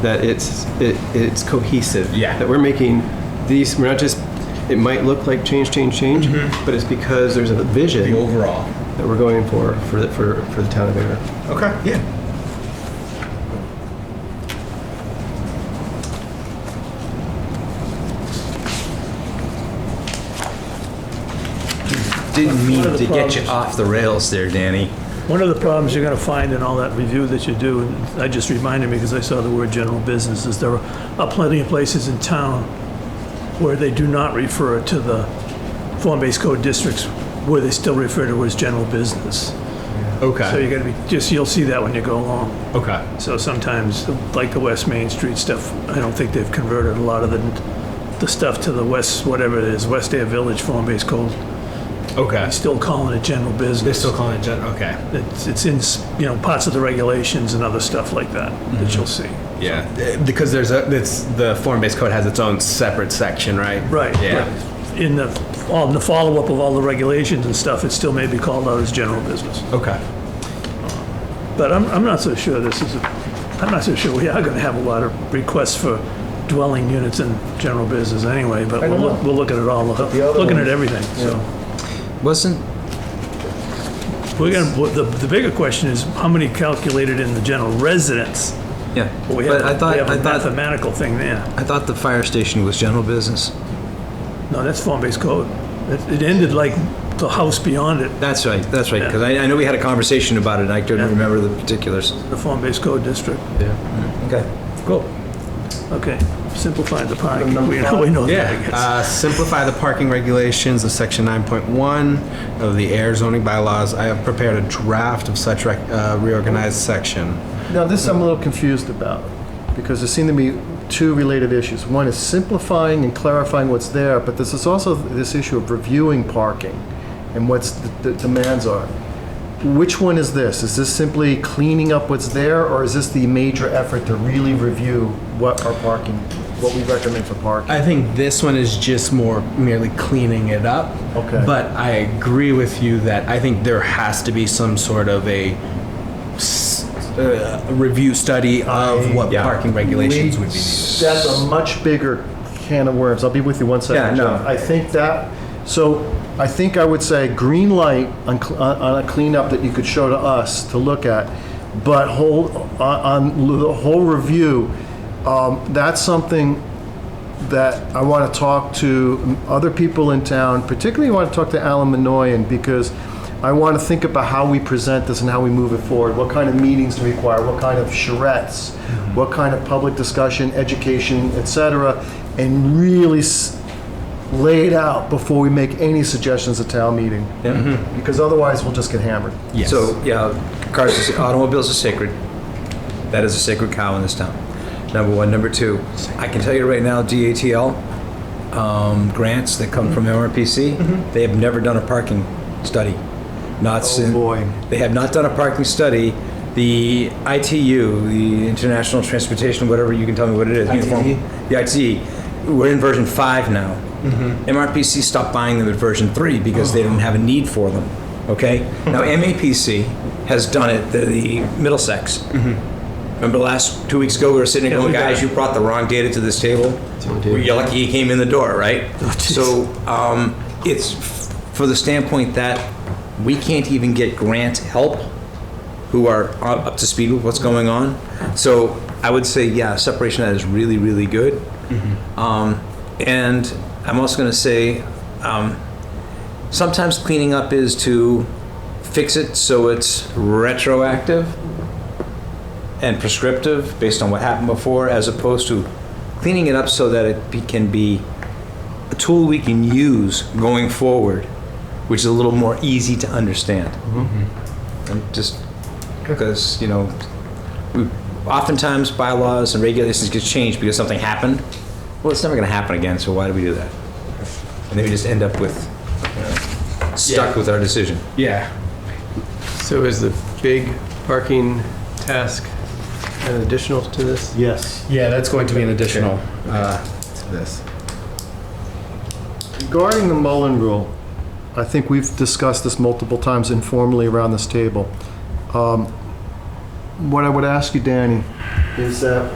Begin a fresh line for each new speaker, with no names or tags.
that it's it, it's cohesive.
Yeah.
That we're making these. We're not just. It might look like change, change, change, but it's because there's a vision
Mm-hmm. the overall.
that we're going for for the, for for the town of Bear.
Okay. Yeah. Didn't mean
One of
to
the
get you
problems-
off the rails there, Danny.
One of the problems you're gonna find in all that review that you do, and I just reminded me because I saw the word general business, is there are plenty of places in town where they do not refer to the form-based code districts, where they still refer to it as general business. So
Okay.
you're gonna be, just, you'll see that when you go along.
Okay.
So sometimes, like the West Main Street stuff, I don't think they've converted a lot of the, the stuff to the West, whatever it is, West Air Village form-based code.
Okay.
They're still calling it general business.
They're still calling it gen. Okay.
It's, it's in, you know, parts of the regulations and other stuff like that
Mm-hmm.
that you'll see.
Yeah. Uh, Because there's a it's the form-based code has its own separate section, right?
Right.
Yeah.
right. In the, on the follow-up of all the regulations and stuff, it still may be called out as general business.
Okay.
But I'm, I'm not so sure this is, a- I'm not so sure we are gonna have a lot of requests for dwelling units in general business anyway, but we'll,
don't
look-
know.
we'll look at it all,
the other
looking at
ones-
everything, so.
Wasn't
We're gonna, what the, the bigger question is, how many calculated in the general residence?
Yeah,
We
but
have,
I
we
thought,
have
I
a
thought,
mathematical thing there.
I thought the fire station was general business.
No, that's form-based code. It, it ended like the house beyond it,
That's right, that's right, because I, I know we had a conversation about it, and I couldn't
Yeah.
remember the particulars.
the form-based code district.
Okay, cool.
Okay, simplified the pie. We know, we know that, I
Yeah,
guess.
uh, simplify the parking regulations of section 9.1 of the air zoning bylaws. I have prepared a draft of such rec- uh, reorganized section.
Now, this I'm a little confused about, because there seem to be two related issues. One is simplifying and clarifying what's there, but this is also this issue of reviewing parking and what's the the demands are. Which one is this? Is this simply cleaning up what's there, or is this the major effort to really review what our parking, what we recommend for parking?
I think this one is just more merely cleaning it up.
Okay.
But I agree with you that I think there has to be some sort of a s- uh, review study of what
Yeah.
parking regulations would be. needed.
That's a much bigger can of worms. I'll be with you one second.
Yeah, no.
Jeff. I think that, so I think I would say green light on, cl- on- on a cleanup that you could show to us to look at, but whole, on, on l- the whole review, um, that's something that I want to talk to other people in town, particularly want to talk to Alan Manoyan because I want to think about how we present this and how we move it forward. What kind of meetings do we require? What kind of charrettes? What kind of public discussion, education, etc., and really s- lay it out before we make any suggestions at town meeting. Because otherwise, we'll just get hammered.
Yes.
So, yeah, cars, is- automobiles are sacred. That is a sacred cow in this town, number one. Number two, I can tell you right now, DATL um, grants that come from MRPC, they have never done a parking study. Not since,
boy.
they have not done a parking study. The ITU, the International Transportation, whatever, you can tell me what it is. Uniform- The ITE, we're in version five now. MRPC stopped buying them at version three because they didn't have a need for them, okay? Now, MAPC has done it, the- the Middlesex. Remember last, two weeks ago, we were sitting there going, guys, you brought the wrong data to this table? You're lucky you came in the door, right? So um, it's f- for the standpoint that we can't even get grant help who are u- up to speed with what's going on. So I would say, yeah, separation of that is really, really good. Um, And I'm also going to say, um, sometimes cleaning up is to fix it so it's retroactive and prescriptive based on what happened before, as opposed to cleaning it up so that it be, can be a tool we can use going forward, which is a little more easy to understand. And just because you know, we, oftentimes bylaws and regulations get changed because something happened. Well, it's never going to happen again, so why do we do that? And then we just end up with you know, stuck with our decision.
yeah.
So is the big parking task an additional to this?
Yes.
Yeah, that's going to be an additional uh, to this.
Regarding the Mullen Rule, I think we've discussed this multiple times informally around this table. Um, What I would ask you, Danny, is that